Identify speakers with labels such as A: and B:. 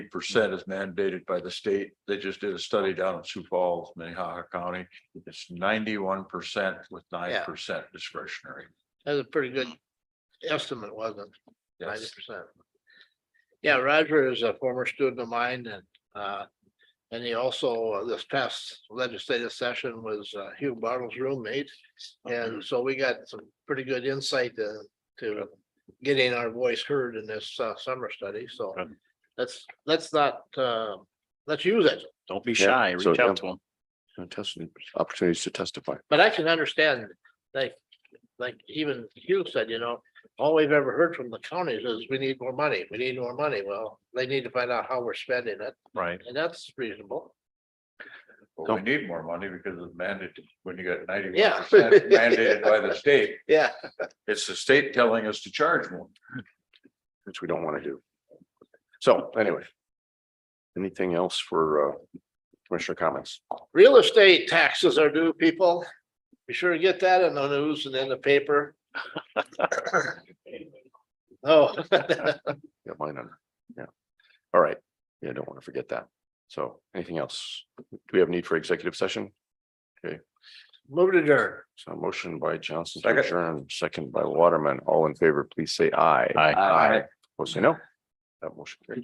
A: percent is mandated by the state. They just did a study down in Sioux Falls, Minnehaha County. It's ninety-one percent with nine percent discretionary.
B: That's a pretty good estimate, wasn't it? Ninety
A: Yes,
B: percent. Yeah, Roger is a former student of mine and, uh, and he also, uh, this past legislative session was uh, Hugh Bartle's roommate. And so we got some pretty good insight to, to getting our voice heard in this uh, summer study, so.
C: Good.
B: Let's, let's not, uh, let's use it,
C: Don't be
D: Yeah,
C: shy,
D: so,
C: reach
D: yeah.
C: out to them.
D: and test- opportunities to testify.
B: but I can understand, like, like even Hugh said, you know. All we've ever heard from the counties is we need more money, we need more money. Well, they need to find out how we're spending it.
C: Right.
B: And that's reasonable.
A: but we need more money because it's mandated when you got ninety-one
B: Yeah.
A: percent mandated by the state.
B: Yeah.
A: It's the state telling us to charge more.
D: which we don't want to do. So anyway. Anything else for uh commissioner comments?
B: Real estate taxes are due, people. Be sure to get that in the news and in the paper. Oh,
D: Yeah, mine under, yeah. All right, yeah, don't want to forget that. So anything else? Do we have need for executive session?
B: move to adjourn.
D: So a motion by Johnson, to
A: Second.
D: adjourn, second by Waterman, all in favor, please say aye.
C: Aye.
D: Aye. Opposed, say no. That motion carries.